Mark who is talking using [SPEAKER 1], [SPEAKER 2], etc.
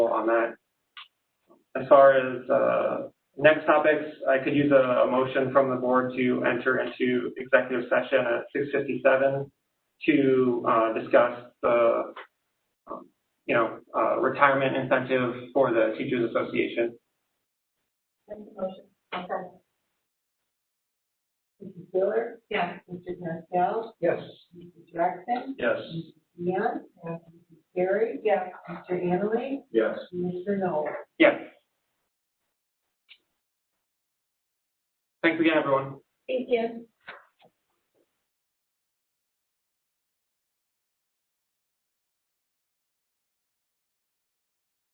[SPEAKER 1] on that. As far as uh, next topics, I could use a a motion from the board to enter into executive session at 6:57 to uh, discuss the, um, you know, uh, retirement incentive for the Teachers Association.
[SPEAKER 2] Make the motion. Okay. Mrs. Miller? Yes. Mr. Pascal?
[SPEAKER 3] Yes.
[SPEAKER 2] Mr. Jackson?
[SPEAKER 3] Yes.
[SPEAKER 2] Neon? Yes. Gary? Yes. Mr. Annaly?
[SPEAKER 3] Yes.
[SPEAKER 2] Mr. Noel?
[SPEAKER 1] Yeah. Thanks again, everyone.
[SPEAKER 2] Thank you.